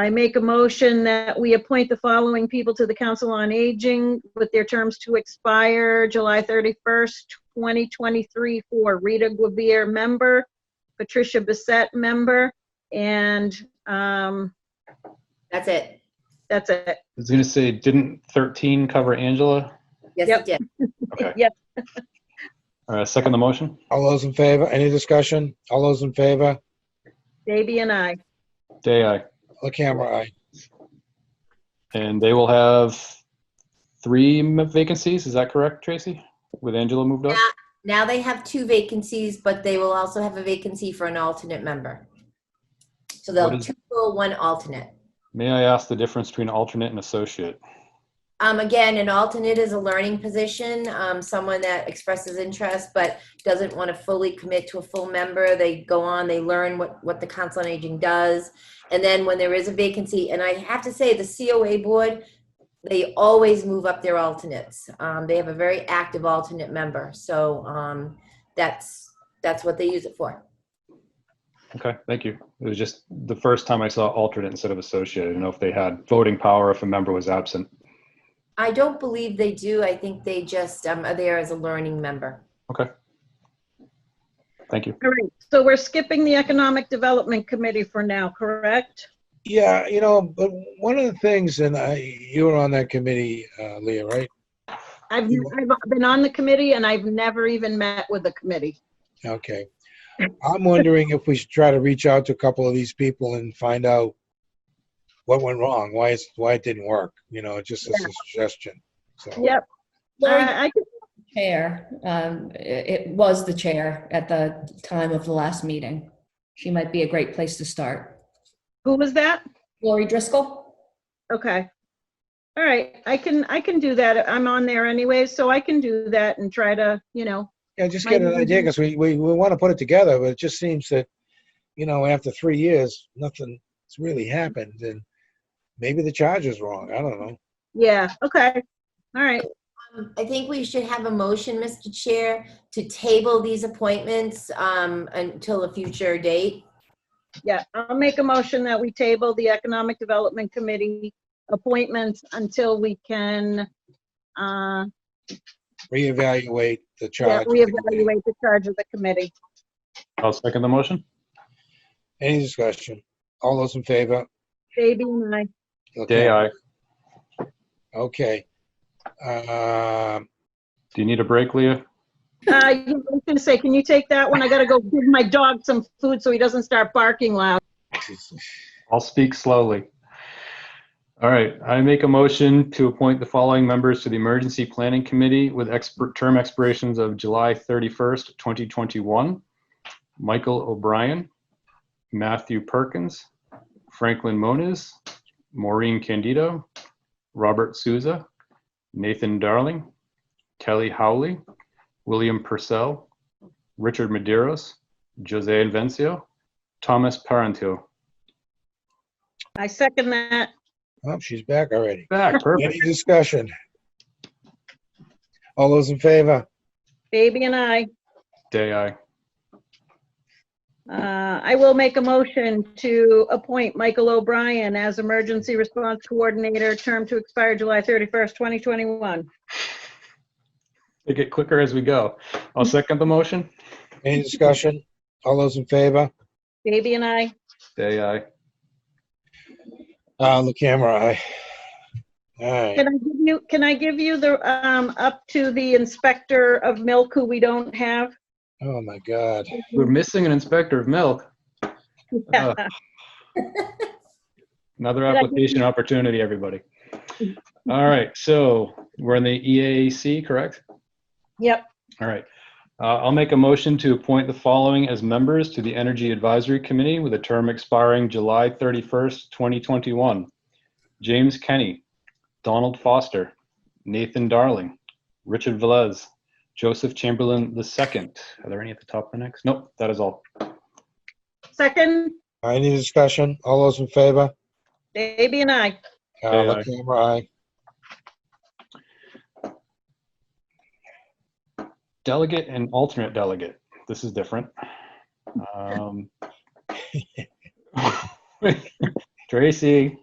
I make a motion that we appoint the following people to the Council on Aging with their terms to expire July 31st, 2023 for Rita Guevere, member, Patricia Bissette, member, and um, That's it. that's it. was gonna say, didn't 13 cover Angela? Yes, Yep. it did. Okay. Yes. All right, second the motion? All those in favor? Any discussion? All those in favor? Davey and I. Day, aye. The camera, aye. And they will have three m- vacancies, is that correct, Tracy? With Angela moved up? Yeah. Now they have two vacancies, but they will also have a vacancy for an alternate member. So they'll What have is- two full, one alternate. May I ask the difference between alternate and associate? Um, again, an alternate is a learning position, um, someone that expresses interest but doesn't want to fully commit to a full member. They go on, they learn what, what the Council on Aging does. And then when there is a vacancy, and I have to say, the COA board, they always move up their alternates. Um, they have a very active alternate member. So um, that's, that's what they use it for. Okay, thank you. It was just the first time I saw alternate instead of associate. I didn't know if they had voting power if a member was absent. I don't believe they do. I think they just um, are there as a learning member. Thank you. All right, so we're skipping the Economic Development Committee for now, correct? Yeah, you know, but one of the things, and I, you were on that committee, uh, Leah, right? I've, I've been on the committee and I've never even met with the committee. Okay. I'm wondering if we should try to reach out to a couple of these people and find out what went wrong, why it's, why it didn't work, you know, just as a suggestion. So, Yep. Lori, Uh, I- I could- chair, um, it it was the chair at the time of the last meeting. She might be a great place to start. Who was that? Lori Driscoll? Okay. All right, I can, I can do that. I'm on there anyway, so I can do that and try to, you know, yeah, just get an idea, because we, we, we want to put it together, but it just seems that, you know, after three years, nothing's really happened, and maybe the charge is wrong, I don't know. yeah, okay. All right, Um, I think we should have a motion, Mr. Chair, to table these appointments um, until a future date. yeah, I'll make a motion that we table the Economic Development Committee appointments until we can, uh, Reevaluate the charge. yeah, reevaluate the charge of the committee. I'll second the motion. Any discussion? All those in favor? Baby and I, Day, aye. Okay. Um, Do you need a break, Leah? uh, I was gonna say, can you take that one? I gotta go give my dog some food so he doesn't start barking loud. I'll speak slowly. All right, I make a motion to appoint the following members to the Emergency Planning Committee with expert term expirations of July 31st, 2021. Michael O'Brien, Matthew Perkins, Franklin Moniz, Maureen Candido, Robert Souza, Nathan Darling, Kelly Howley, William Purcell, Richard Maderos, Jose Invencio, Thomas Parenteau. I second that. Oh, she's back already. Back, perfect. Any discussion? All those in favor? Baby and I. Day, aye. Uh, I will make a motion to appoint Michael O'Brien as Emergency Response Coordinator, term to expire July 31st, 2021. Make it quicker as we go. I'll second the motion. Any discussion? All those in favor? Baby and I, Day, aye. Uh, the camera, aye. All right, can I give you, can I give you the, um, up to the Inspector of Milk who we don't have? oh my God. We're missing an inspector of milk. Uh, Another application opportunity, everybody. All right, so we're in the EAC, correct? Yep, All right. Uh, I'll make a motion to appoint the following as members to the Energy Advisory Committee with a term expiring July 31st, 2021. James Kenny, Donald Foster, Nathan Darling, Richard Velez, Joseph Chamberlain II. Are there any at the top of the next? Nope, that is all. second, Any discussion? All those in favor? Baby and I. Uh, Aye, aye. the camera, aye. Delegate and alternate delegate. This is different. Um, Tracy.